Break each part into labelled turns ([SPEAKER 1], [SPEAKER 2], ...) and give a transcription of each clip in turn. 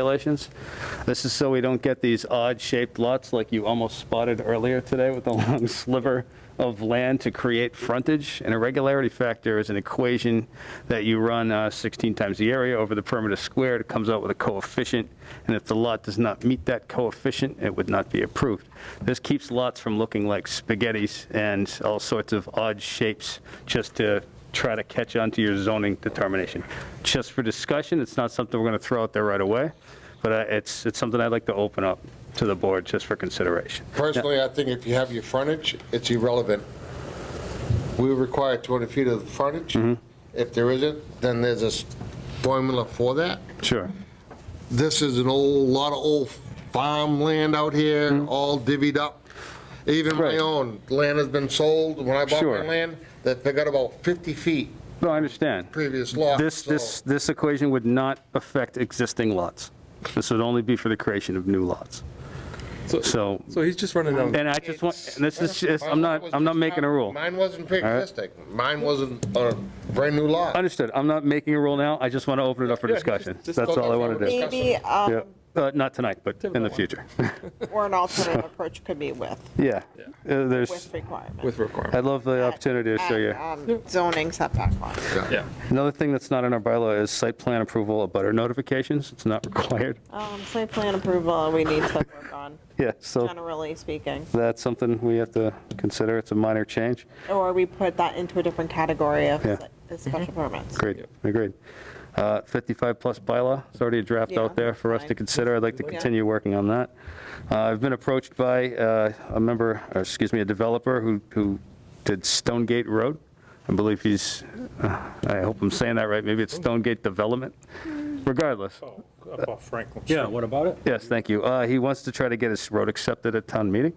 [SPEAKER 1] regulations. This is so we don't get these odd-shaped lots like you almost spotted earlier today with a long sliver of land to create frontage. An irregularity factor is an equation that you run uh, 16 times the area over the perimeter squared. It comes out with a coefficient, and if the lot does not meet that coefficient, it would not be approved. This keeps lots from looking like spaghettis and all sorts of odd shapes just to try to catch on to your zoning determination. Just for discussion, it's not something we're going to throw out there right away, but uh, it's, it's something I'd like to open up to the board just for consideration.
[SPEAKER 2] Personally, I think if you have your frontage, it's irrelevant. We require 200 feet of frontage.
[SPEAKER 1] Mm-hmm.
[SPEAKER 2] If there isn't, then there's a s- formula for that.
[SPEAKER 1] Sure.
[SPEAKER 2] This is an old, lot of old farmland out here, all divvied up. Even my
[SPEAKER 1] Mm-hmm. Right.
[SPEAKER 2] own land has been sold. When I bought
[SPEAKER 1] Sure.
[SPEAKER 2] my land, that they got about 50 feet
[SPEAKER 1] No, I understand.
[SPEAKER 2] previous lot.
[SPEAKER 1] This,
[SPEAKER 2] so-
[SPEAKER 1] this, this equation would not affect existing lots. This would only be for the creation of new lots. So,
[SPEAKER 3] So he's just running down.
[SPEAKER 1] and I just want, and this is, just-
[SPEAKER 2] My
[SPEAKER 1] I'm
[SPEAKER 2] lot
[SPEAKER 1] not,
[SPEAKER 2] was
[SPEAKER 1] I'm not
[SPEAKER 2] just
[SPEAKER 1] making a
[SPEAKER 2] not-
[SPEAKER 1] rule.
[SPEAKER 2] Mine wasn't pre-existing. Mine wasn't a brand-new lot.
[SPEAKER 1] Understood. I'm not making a rule now. I just want to open it up for
[SPEAKER 3] Yeah, just-
[SPEAKER 1] discussion.
[SPEAKER 3] just
[SPEAKER 1] That's
[SPEAKER 2] go
[SPEAKER 1] all I
[SPEAKER 2] for
[SPEAKER 1] want to
[SPEAKER 2] it.
[SPEAKER 1] do.
[SPEAKER 4] Maybe,
[SPEAKER 1] Yeah.
[SPEAKER 4] um,
[SPEAKER 1] Uh, Not tonight, but in the
[SPEAKER 3] Typical one.
[SPEAKER 1] future.
[SPEAKER 4] or an alternative approach could be with,
[SPEAKER 1] Yeah. Uh, There's.
[SPEAKER 4] with requirements.
[SPEAKER 3] With requirement.
[SPEAKER 1] I'd love the opportunity to show you.
[SPEAKER 4] And, um, Zoning setback law.
[SPEAKER 3] Yeah.
[SPEAKER 1] Another thing that's not in our bylaw is site plan approval of butter notifications. It's not required.
[SPEAKER 4] Um, site plan approval, we need to work on,
[SPEAKER 1] Yeah, so
[SPEAKER 4] generally speaking.
[SPEAKER 1] that's something we have to consider. It's a minor change.
[SPEAKER 4] Or we put that into a different category of
[SPEAKER 1] Yeah.
[SPEAKER 4] si- special permits.
[SPEAKER 1] Great, agreed. Uh, 55-plus bylaw, it's already a draft
[SPEAKER 4] Yeah,
[SPEAKER 1] out there for us to
[SPEAKER 4] fine.
[SPEAKER 1] consider. I'd like to
[SPEAKER 4] Yeah.
[SPEAKER 1] continue working on that. Uh, I've been approached by uh, a member, or excuse me, a developer who, who did Stonegate Road. I believe he's, uh, I hope I'm saying that right, maybe it's Stonegate Development. Regardless,
[SPEAKER 5] Up off Franklin.
[SPEAKER 6] Yeah, what about it?
[SPEAKER 1] Yes, thank you. Uh, He wants to try to get his road accepted at town meeting.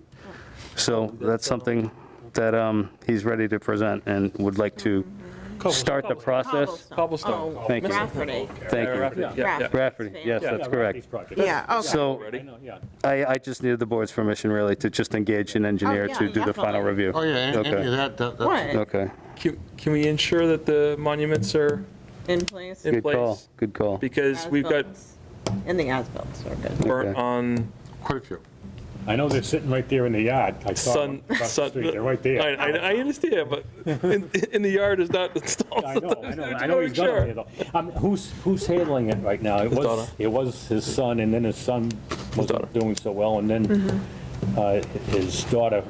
[SPEAKER 1] So that's something that um, he's ready to present and would like to start the process.
[SPEAKER 3] Cobblestone.
[SPEAKER 4] Oh,
[SPEAKER 1] Thank you.
[SPEAKER 4] Rafferty.
[SPEAKER 1] Thank you.
[SPEAKER 6] Yeah, yeah.
[SPEAKER 4] Rafferty.
[SPEAKER 1] Rafferty, yes,
[SPEAKER 6] Yeah,
[SPEAKER 1] that's
[SPEAKER 6] right, these
[SPEAKER 1] correct.
[SPEAKER 6] projects. Oh,
[SPEAKER 4] Yeah, okay.
[SPEAKER 1] So
[SPEAKER 6] I know, yeah.
[SPEAKER 1] I, I just needed the board's permission really to just engage an engineer
[SPEAKER 4] Oh, yeah,
[SPEAKER 1] to do the final
[SPEAKER 4] definitely.
[SPEAKER 1] review.
[SPEAKER 2] Oh, yeah, and-
[SPEAKER 1] Okay.
[SPEAKER 2] and that, that- that's-
[SPEAKER 4] What,
[SPEAKER 1] Okay,
[SPEAKER 3] Can, can we ensure that the monuments are
[SPEAKER 4] in place?
[SPEAKER 3] In
[SPEAKER 1] good call,
[SPEAKER 3] place.
[SPEAKER 1] good call.
[SPEAKER 3] because we've got
[SPEAKER 4] As-bills. In the as-bills, are good.
[SPEAKER 3] burnt
[SPEAKER 1] Okay.
[SPEAKER 3] on
[SPEAKER 2] quite a few.
[SPEAKER 6] I know they're sitting right there in the yard. I saw them
[SPEAKER 3] sun.
[SPEAKER 6] across the
[SPEAKER 3] sun
[SPEAKER 6] street. They're right there.
[SPEAKER 3] I, I, I understand, but in, in the yard is not installed.
[SPEAKER 6] I know, I know, I know
[SPEAKER 3] Sure.
[SPEAKER 6] he's got it there though. Um, Who's, who's handling it right now? It was,
[SPEAKER 3] daughter.
[SPEAKER 6] it was his son and then his son
[SPEAKER 3] daughter.
[SPEAKER 6] wasn't doing so well and then uh, his daughter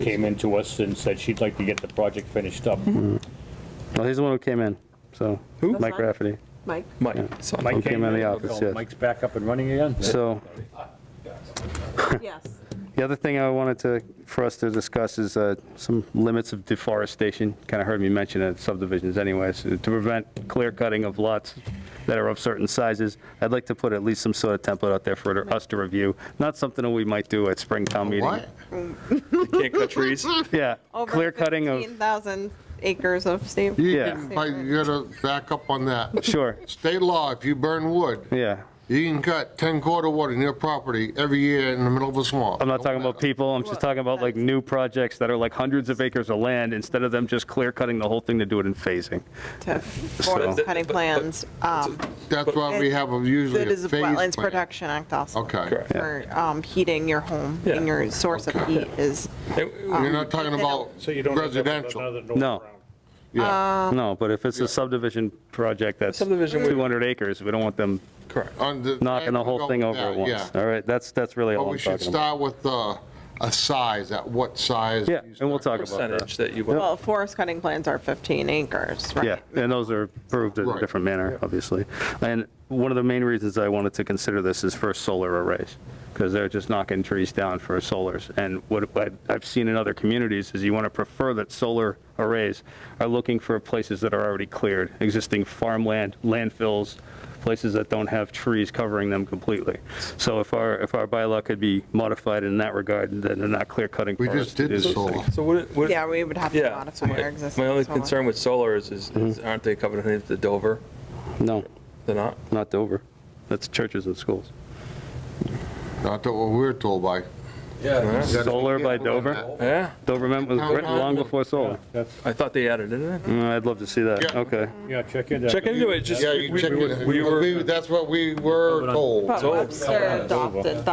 [SPEAKER 6] came into us and said she'd like to get the project finished up.
[SPEAKER 1] Well, he's the one who came in, so.
[SPEAKER 3] Who?
[SPEAKER 1] Mike Rafferty.
[SPEAKER 4] Mike?
[SPEAKER 3] Mike, son.
[SPEAKER 6] Mike
[SPEAKER 1] came in the
[SPEAKER 6] and-
[SPEAKER 1] office, yes.
[SPEAKER 6] Mike's back up and running again?
[SPEAKER 1] So
[SPEAKER 4] Yes.
[SPEAKER 1] The other thing I wanted to, for us to discuss is uh, some limits of deforestation. Kind of heard me mention it subdivisions anyways, to prevent clear cutting of lots that are of certain sizes. I'd like to put at least some sort of template out there for us to review, not something that we might do at Springtown meeting.
[SPEAKER 2] What?
[SPEAKER 3] You can't cut trees.
[SPEAKER 1] Yeah,
[SPEAKER 4] Over
[SPEAKER 1] clear cutting of,
[SPEAKER 4] 15,000 acres of state.
[SPEAKER 2] You
[SPEAKER 1] Yeah.
[SPEAKER 2] can, but you gotta back up on that.
[SPEAKER 1] sure,
[SPEAKER 2] State law, if you burn wood,
[SPEAKER 1] yeah.
[SPEAKER 2] you can cut 10 quarter wood in your property every year in the middle of a swamp.
[SPEAKER 1] I'm not talking about people, I'm just
[SPEAKER 4] Well,
[SPEAKER 1] talking about like
[SPEAKER 4] that's-
[SPEAKER 1] new projects that are like hundreds of acres of land, instead of them just clear cutting the whole thing to do it in phasing. So-
[SPEAKER 4] to forest cutting
[SPEAKER 3] But- but-
[SPEAKER 4] plans. um,
[SPEAKER 2] That's why we have a- usually
[SPEAKER 4] That
[SPEAKER 2] a
[SPEAKER 4] is
[SPEAKER 2] phase
[SPEAKER 4] the
[SPEAKER 2] plan.
[SPEAKER 4] Wetlands Protection Act also.
[SPEAKER 2] Okay. Correct.
[SPEAKER 4] For um, heating your home,
[SPEAKER 3] Yeah.
[SPEAKER 4] and your source of heat is,
[SPEAKER 2] You're not talking about residential.
[SPEAKER 1] No.
[SPEAKER 2] Yeah.
[SPEAKER 1] No, but if it's a subdivision project that's
[SPEAKER 3] Subdivision would-
[SPEAKER 1] 200 acres, we don't want them
[SPEAKER 3] Correct.
[SPEAKER 2] On the-
[SPEAKER 1] knocking the whole thing over
[SPEAKER 2] Yeah,
[SPEAKER 1] at once.
[SPEAKER 2] Yeah,
[SPEAKER 1] All right, that's, that's really
[SPEAKER 2] but
[SPEAKER 1] all
[SPEAKER 2] we
[SPEAKER 1] I'm
[SPEAKER 2] should
[SPEAKER 1] talking about.
[SPEAKER 2] start with uh, a size, at what size.
[SPEAKER 1] Yeah,
[SPEAKER 2] you
[SPEAKER 1] and we'll
[SPEAKER 2] start.
[SPEAKER 1] talk about that.
[SPEAKER 3] Percentage that you want.
[SPEAKER 4] well, forest cutting plans are 15 acres,
[SPEAKER 1] Yeah,
[SPEAKER 4] right?
[SPEAKER 1] and those are approved in a
[SPEAKER 2] Right.
[SPEAKER 1] different manner, obviously. And one of the main reasons I wanted to consider this is for solar arrays, because they're just knocking trees down for solars. And what I- I've seen in other communities is you want to prefer that solar arrays are looking for places that are already cleared, existing farmland, landfills, places that don't have trees covering them completely. So if our, if our bylaw could be modified in that regard, then they're not clear cutting
[SPEAKER 2] We
[SPEAKER 1] forests.
[SPEAKER 2] just did
[SPEAKER 1] to do
[SPEAKER 2] solar.
[SPEAKER 3] So what? what
[SPEAKER 4] Yeah, we would have to
[SPEAKER 3] yeah. So
[SPEAKER 4] modify our
[SPEAKER 3] my,
[SPEAKER 4] existing.
[SPEAKER 3] my only
[SPEAKER 4] solar.
[SPEAKER 3] concern with solar is, is, is aren't they covered underneath the Dover?
[SPEAKER 1] No,
[SPEAKER 3] They're not.
[SPEAKER 1] not Dover. That's churches and schools.
[SPEAKER 2] Not that what we were told by.
[SPEAKER 3] Yeah.
[SPEAKER 1] Solar by Dover?
[SPEAKER 3] Yeah,
[SPEAKER 1] Doverment was written long before solar.
[SPEAKER 6] That's-
[SPEAKER 3] I thought they added it in.
[SPEAKER 1] Mm, I'd love to see that,
[SPEAKER 2] Yeah.
[SPEAKER 1] okay.
[SPEAKER 6] Yeah, check into that.
[SPEAKER 3] Check into it, just.
[SPEAKER 2] Yeah, you
[SPEAKER 3] we-
[SPEAKER 2] check
[SPEAKER 3] we-
[SPEAKER 2] it.
[SPEAKER 3] we were-
[SPEAKER 2] We- That's what we were told.
[SPEAKER 4] But
[SPEAKER 3] over.
[SPEAKER 4] Webster adopted that.